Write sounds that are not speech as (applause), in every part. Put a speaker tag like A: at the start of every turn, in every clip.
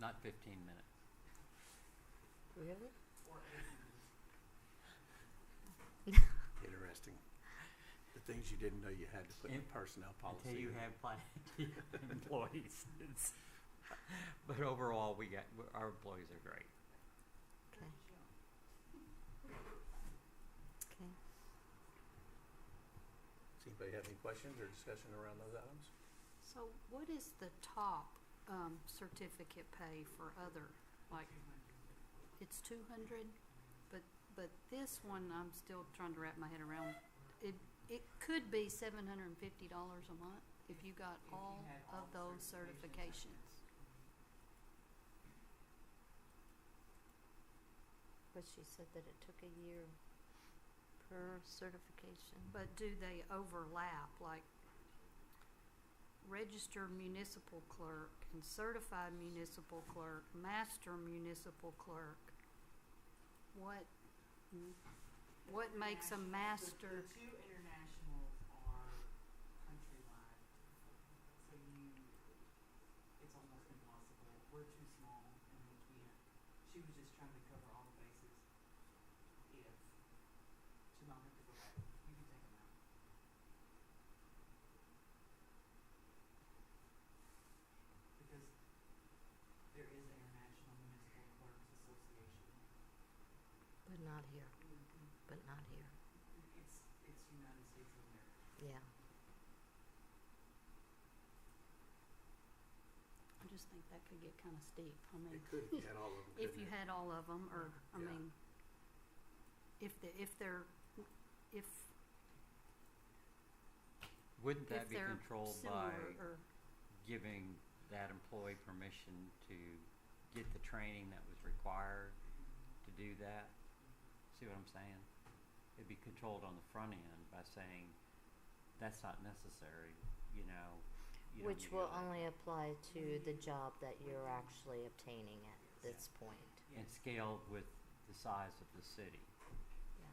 A: not fifteen minutes.
B: Really?
C: Interesting. The things you didn't know you had to put in
A: In-
C: personnel policy.
A: Until you
C: in.
A: have plenty of (laughs) employees. It's- But overall, we got, we- our employees are great.
B: Okay. Okay.
C: Does anybody have any questions or discussion around those items?
B: So what is the top um, certificate pay for other? Like, it's two hundred, but but this one I'm still trying to wrap my head around. It it could be seven hundred and fifty dollars a month if you got all of those certifications.
D: But she said that it took a year per certification.
B: But do they overlap, like registered municipal clerk and certified municipal clerk, master municipal clerk? What, what makes a master,
E: The two internationals are countrywide, so you, it's almost impossible. We're too small and we can't. She was just trying to cover all the bases. If, to not have to go back, you can take them out. Because there is an International Municipal Clerks Association.
D: But not here, but not here,
E: It's, it's United States of America.
D: yeah.
B: I just think that could get kinda steep, I mean,
C: It could, if you had all of them.
B: Mm. if
C: couldn't
B: you
C: it?
B: had all of them, or, I
C: Yeah.
B: mean, if the, if they're, if,
A: Wouldn't
B: if
A: that be
B: they're
A: controlled by
B: similar or,
A: giving that employee permission to get the training that was required to do that? See what I'm saying? It'd be controlled on the front end by saying, that's not necessary, you know. you don't need
D: Which
A: to
D: will
A: go there."
D: only apply to the job that you're actually obtaining at this point,
A: And scaled with the size of the city.
D: yeah.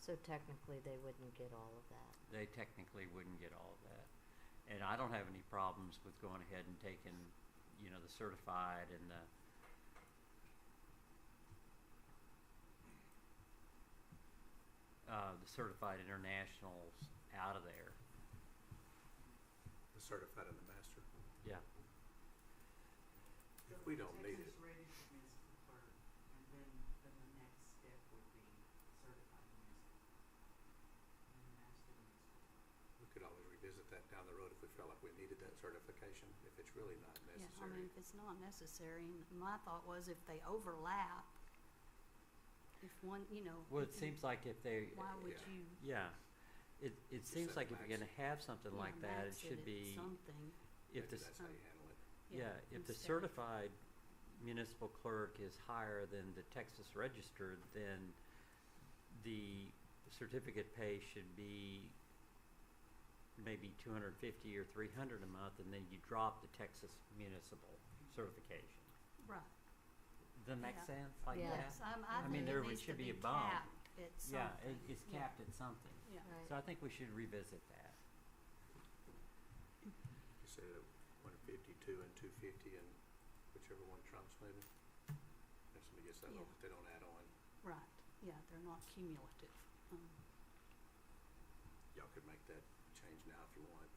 D: So technically, they wouldn't get all of that.
A: they technically wouldn't get all of that. And I don't have any problems with going ahead and taking, you know, the certified and the. Uh, the certified internationals out of there.
C: The certified and the master.
A: Yeah.
C: If we don't need it,
E: Texas registered municipal clerk, and then, then the next step would be certified municipal. And then master municipal.
C: we could always revisit that down the road if we felt like we needed that certification, if it's really not
B: yeah, I mean,
C: necessary.
B: if it's not necessary, and my thought was if they overlap, if one, you know.
A: Well,
B: if
A: it
B: you-
A: seems like if they,
B: Why would
C: Yeah.
B: you?
A: yeah, it it seems
C: said
A: like if you're
C: max.
A: gonna have something
B: you
A: like
B: know,
A: that, it
B: max
A: should
B: at
A: be
B: Something.
A: if
C: Maybe
A: the
C: That's how you handle it.
A: Yeah, if the
B: instead of-
A: certified municipal clerk is higher than the Texas registered, then the certificate pay should be maybe two hundred fifty or three hundred a month, and then you drop the Texas municipal certification.
B: Right.
A: Doesn't that
B: Yeah.
A: make sense like
D: Yeah.
A: that?
B: Yes, I'm,
A: I
B: I
A: mean,
B: think
A: there
B: it
A: would-
B: needs to
A: should be
B: be
A: a bond.
B: capped at
A: Yeah,
B: something.
A: it, it's
B: Yeah.
A: capped at something.
B: Yeah.
A: So I think we should revisit that.
C: You said it, one fifty-two and two fifty and whichever one trumps maybe. If somebody gets that low,
B: Yeah.
C: but they don't add on,
B: Right, yeah, they're not cumulative. Um,
C: y'all could make that change now if you want.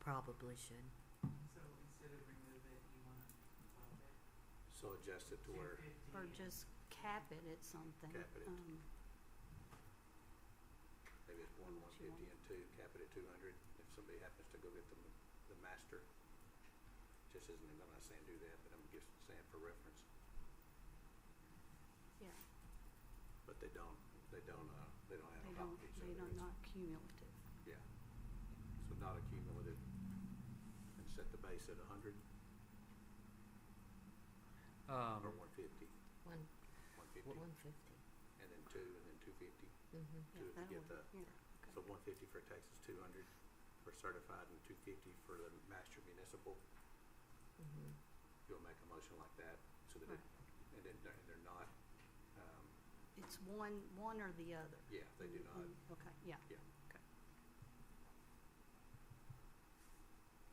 D: Probably should.
E: So instead of remove it, you wanna bump it
C: So adjust it
E: to
C: to where
E: fifty?
B: Or just cap it at something.
C: Cap it at-
B: Um,
C: maybe it's one, one
B: What you
C: fifty and two, cap it at two hundred. If somebody happens to go get the, the master, just isn't, I'm not saying do that, but I'm just saying for reference.
B: Yeah,
C: But they don't, they don't, uh, they don't add
B: they
C: on top
B: don't,
C: of each
B: they
C: other.
B: don't,
C: It's-
B: not cumulative.
C: Yeah. So not accumulative. And set the base at a hundred
A: Um,
C: or one fifty,
D: One,
C: one fifty.
D: one fifty.
C: and then two, and then two fifty.
D: Mm-hmm.
B: Yeah,
C: Do it to
B: that'll
C: get
B: work.
C: the-
B: Yeah,
C: So
B: okay.
C: one fifty for Texas, two hundred for certified, and two fifty for the master municipal.
D: Mm-hmm.
C: You'll make a motion like that, so that it, and then they're, they're not, um,
B: It's one, one or the other.
C: yeah, they do not,
B: Mhm. Okay, yeah.
C: yeah.